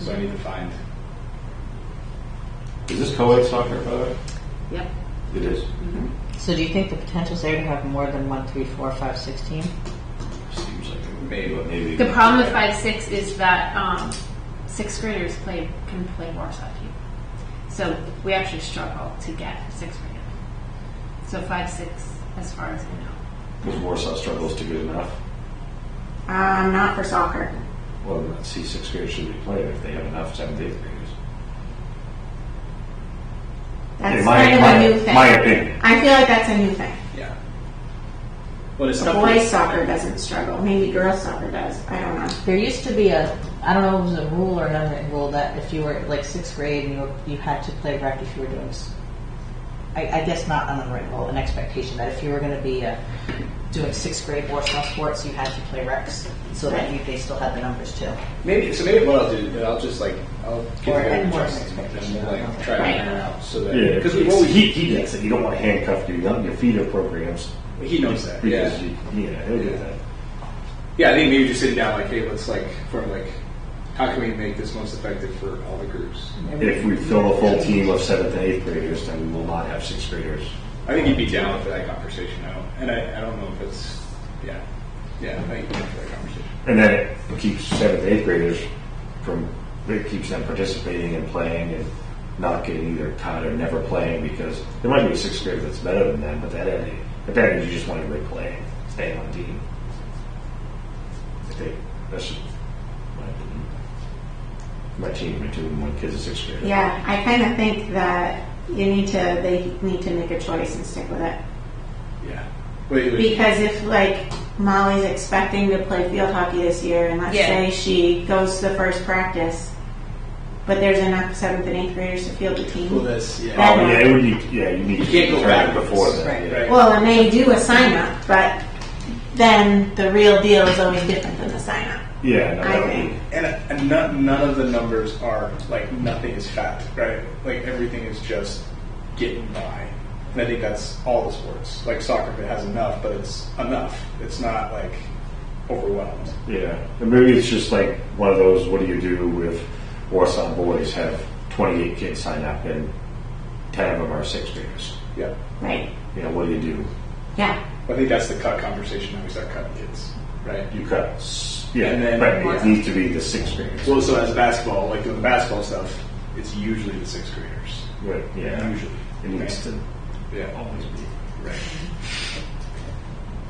so I need to find. Is this co-ed soccer, by the way? Yep. It is. Mm-hmm. So do you think the potential's there to have more than one, three, four, five, sixteen? Seems like it. Maybe. But maybe. The problem with five six is that um, sixth graders play can play Warsaw Cube, so we actually struggle to get sixth graders. So five six, as far as I know, Because Warsaw struggles to get enough. Um, not for soccer. Well, then let's see, sixth grade should be played if they have enough seventh, eighth graders. That's In my- kind of my- a new thing. my opinion. I feel like that's a new thing. Yeah. Well, it's stuff Boys like, soccer doesn't struggle. Maybe girls soccer does. I don't know. There used to be a, I don't know if it was a rule or an unwritten rule that if you were like sixth grade and you, were- you had to play rec if you were doing, s- I, I guess not an unwritten rule, an expectation that if you were going to be uh, doing sixth grade Warsaw sports, you had to play recs so that you, they still had the numbers too. maybe, so maybe what I'll do, is I'll just like, I'll give Or it a add more adjustment and we'll like expectation. try to Right. iron out so that, Yeah, because we always, he, he gets it. You don't want to handcuff your young, your feeder programs. he knows that, yeah. Because you, yeah, he'll get that. Yeah, I think maybe just sitting down like, hey, let's like, from like, how can we make this most effective for all the groups? If we fill a full team of seventh and eighth graders, then we will not have sixth graders. I think he'd be down for that conversation. I don't, and I, I don't know if it's, yeah, yeah, I think he'd be down for that conversation. And then it keeps seventh, eighth graders from, it keeps them participating and playing and not getting either cut or never playing because there might be a sixth grader that's better than them, but that end, at that end, you just want everybody playing, staying on team. I think that's just my opinion. My team, my two, my kid's a sixth grader. Yeah, I kind of think that you need to. They need to make a choice and stick with it. Yeah. Wait, wait. Because if like Molly's expecting to play field hockey this year, and let's Yeah. say she goes to the first practice, but there's enough seventh and eighth graders to field the Well, team. that's yeah. That- Oh, yeah, it would need, yeah, you need You to can't go try it backwards. before that. Right. yeah. Right. Well, and they do a sign up, but then the real deal is always different than the sign up. Yeah, no, I that would be, think. and and none, none of the numbers are like nothing is fact, right? Like everything is just getting by. And I think that's all the sports. Like soccer, if it has enough, but it's enough. It's not like overwhelmed. Yeah, and maybe it's just like one of those. What do you do with Warsaw boys? Have twenty-eight kids sign up, and ten of them are sixth graders. Yeah. Right. You know, what do you do? Yeah. I think that's the cut conversation that we start cutting kids, right? You cut. s- Yeah, And then- right. yeah. It needs to be the sixth graders. Well, so as basketball, like doing the basketball stuff, it's usually the sixth graders. right. Yeah. Usually. It needs to Yeah. always be. Right.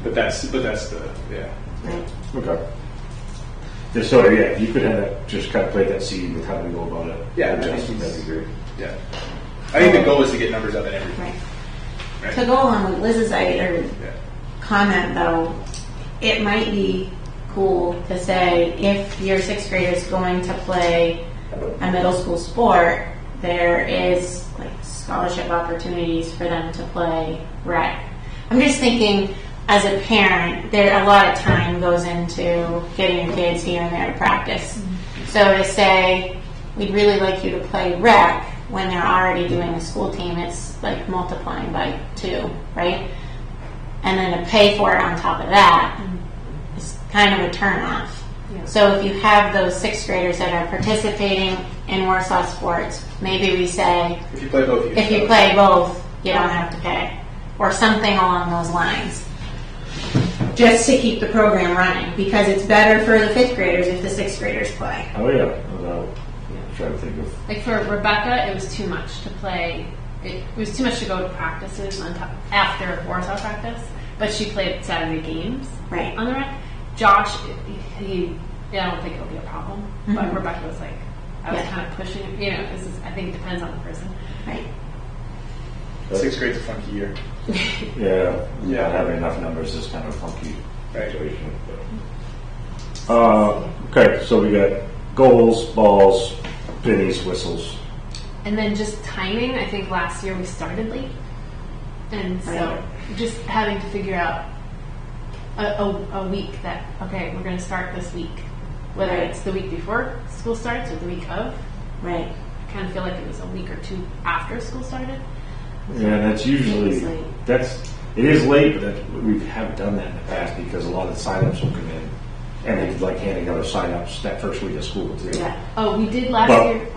But that's but that's the yeah. Right. Okay. Yeah, So yeah, if you could have just kind of play that scene with how we go about it. Yeah, I adjust, think that'd be great. Yeah. I think the goal is to get numbers up in everything. Right. Right. To go along with Liz's idea, Yeah. comment though, it might be cool to say if your sixth grader is going to play a middle school sport, there is like scholarship opportunities for them to play rec. I'm just thinking as a parent, there a lot of time goes into getting your kids here and there to practice. So to say, we'd really like you to play rec when they're already doing a school team, it's like multiplying by two, right? and then to pay for it on top of that is kind of a turnoff. So if you have those sixth graders that are participating in Warsaw sports, maybe we say, If you play both, if you play both, you don't have to pay, or something along those lines. Just to keep the program running, because it's better for the fifth graders if the sixth graders play. Oh yeah. Well, I'm trying to think of. like for Rebecca, it was too much to play. It, was too much to go to practices on top after Warsaw practice, but she played Saturday games Right. on the rec. Josh, he, he I don't think it'll be a problem, but Rebecca was like, I was Yeah. kind of pushing. You know, this is I think it depends on the person. Right. sixth grade's a funky year, Yeah, yeah, not having enough numbers is kind of a funky Right. situation. but- Uh, okay, so we got goals, balls, pennies, whistles. And then just timing, I think last year we started late. And so just having to figure out a, a, a week that, okay, we're going to start this week. Whether it's the week before school starts or the week of, Right. I kind of feel like it was a week or two after school started. Yeah, that's usually It's late. that's it is late, but that, we have done that in the past because a lot of the signups will come in and they like handing out sign-ups that first week of school too. Yeah. Oh, we did last Well- year.